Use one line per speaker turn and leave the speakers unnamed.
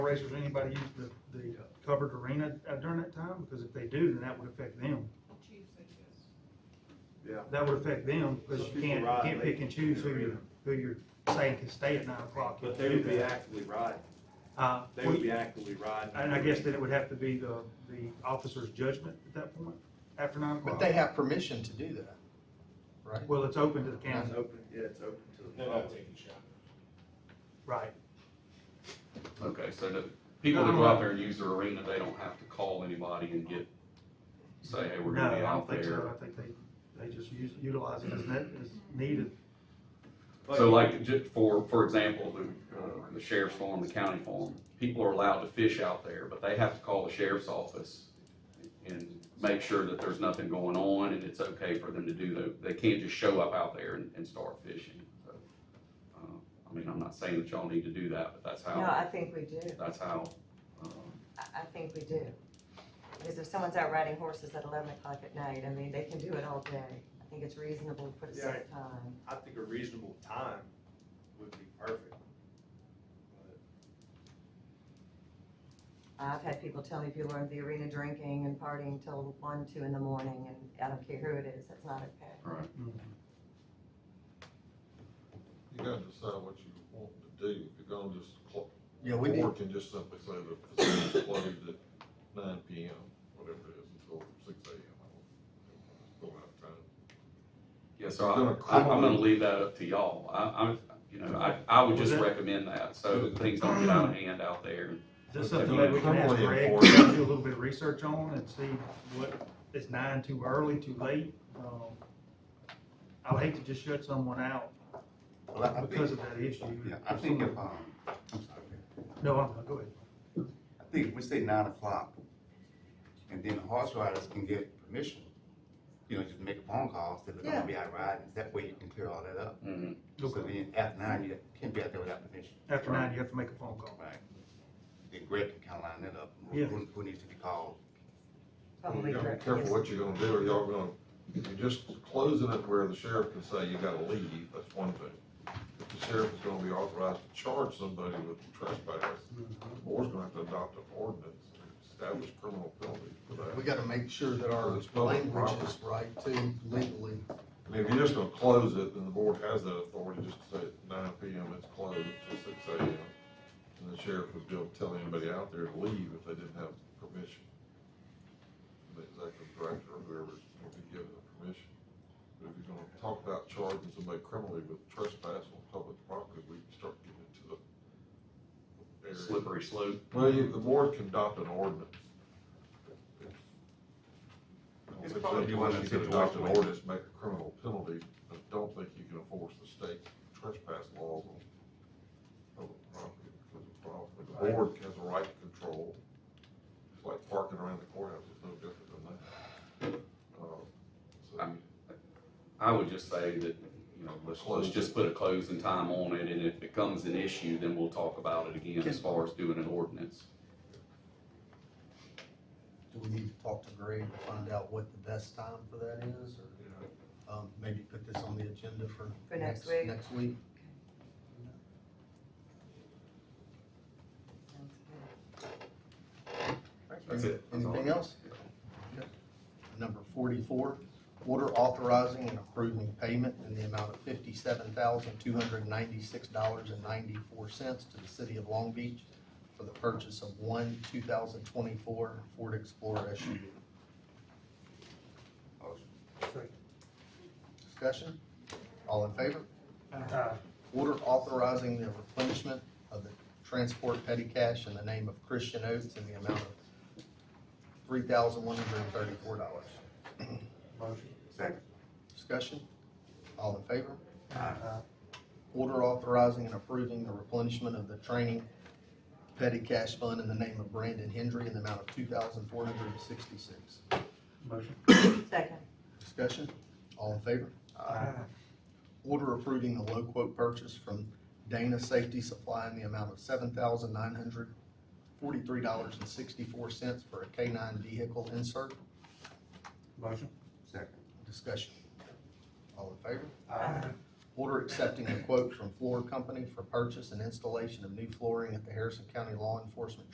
racers, or anybody use the, the covered arena uh, during that time? Because if they do, then that would affect them.
Yeah.
That would affect them, because you
People
can't, you
ride
can't pick
late
and choose
in the
who you're,
arena.
who you're saying can stay at nine o'clock.
But they would be actively riding,
Uh,
they would
we-
be actively riding.
And I guess that it would have to be the, the officer's judgment at that point, after nine o'clock.
But they have permission to do that, right?
Well, it's open to the
It's
council,
open, yeah, it's open to the
They're not
public.
taking shots.
right.
Okay, so the people that go out there and use their arena, they don't have to call anybody and get, say, hey, we're
No,
gonna
I
be
don't
out
think so.
there.
I think they, they just use, utilize it as ne as needed.
So like, ju- for, for example, the, uh, the sheriff's farm, the county farm, people are allowed to fish out there, but they have to call the sheriff's office and make sure that there's nothing going on and it's okay for them to do that. They can't just show up out there and, and start fishing, so. uh, I mean, I'm not saying that y'all need to do that, but that's
No, I
how,
think we do.
that's how, um,
I, I think we do. Because if someone's out riding horses at eleven o'clock at night, I mean, they can do it all day. I think it's reasonable to put a set time.
I think a reasonable time would be perfect.
I've had people tell me people are in the arena drinking and partying till one, two in the morning, and I don't care who it is, that's not okay.
right.
Mm.
You gotta decide what you want to do, if you're gonna just, clo-
Yeah, we
board
do,
can just simply say the facility's closed at nine P M, whatever it is, until six A M. Go out time.
Yeah,
It's
so
gonna
I, I'm I'm gonna
cripple-
leave that up to y'all. I, I'm, you know, I, I would just
Well, that-
recommend that, so things don't get out of hand out there.
Is that
Okay.
something maybe we can ask
Probably
Greg,
enforce
do a
it.
little bit of research on and see what, is nine too early, too late? Um, I would hate to just shut someone out
Well, I- I
because
think,
of that issue.
yeah, I think if, um, I'm sorry,
No, I'm, go ahead.
I think if we say nine o'clock, and then the horse riders can get permission, you know, just make a phone call, say they're
Yeah.
gonna be out riding, that way you can clear all that up.
Mhm.
So
Okay.
then after nine, you can't be out there without permission.
After nine, you have to make a phone call.
Right. Then Greg can kinda line that up,
Yeah.
who, who needs to be called.
Probably
You gotta be
correct,
careful
yes.
what you're gonna do, or y'all gonna, if you're just closing it where the sheriff can say you gotta leave, that's one thing. If the sheriff is gonna be authorized to charge somebody with trespass, the board's gonna have to adopt an ordinance, and establish criminal penalties for that.
we gotta make sure that our
It's public
language is right too legally.
I mean, if you're just gonna close it, then the board has that authority just to say at nine P M, it's closed till six A M. And the sheriff would be able to tell anybody out there to leave if they didn't have permission. The executive director or whoever's gonna be given the permission. But if you're gonna talk about charging somebody criminally with trespass on public property, we can start getting into the area.
Slippery slope.
Well, you, the board can adopt an ordinance.
It's probably
You
one
want
of the
to adopt an
situations-
ordinance, make a criminal penalty, but don't think you can enforce the state trespass laws on public property because of problems. The board has a right to control, it's like parking around the courthouse, it's no different than that. Uh, So,
I would just say that, you know, let's, let's just put a closing time on it, and if it becomes an issue, then we'll talk about it again as far as doing an ordinance.
Do we need to talk to Greg to find out what the best time for that is,
you know,
or, um, maybe put this on the agenda for?
For next week.
Next week.
Sounds good.
That's it. That's all.
Anything else? Number forty-four, order authorizing and approving payment in the amount of fifty-seven thousand, two hundred ninety-six dollars and ninety-four cents to the city of Long Beach for the purchase of one two thousand twenty-four Ford Explorer SUV.
Motion.
Discussion? All in favor?
Uh,
Order authorizing the replenishment of the transport petty cash in the name of Christian Oates in the amount of three thousand, one hundred and thirty-four dollars.
Motion.
Second.
Discussion? All in favor?
Uh,
Order authorizing and approving the replenishment of the training petty cash fund in the name of Brandon Hendry in the amount of two thousand four hundred and sixty-six.
Motion.
Second,
Discussion? All in favor?
Aye.
Order approving the low quote purchase from Dana Safety Supply in the amount of seven thousand nine hundred forty-three dollars and sixty-four cents for a K nine vehicle insert.
Motion.
Second.
Discussion? All in favor?
Aye.
Order accepting a quote from Floor Company for purchase and installation of new flooring at the Harrison County Law Enforcement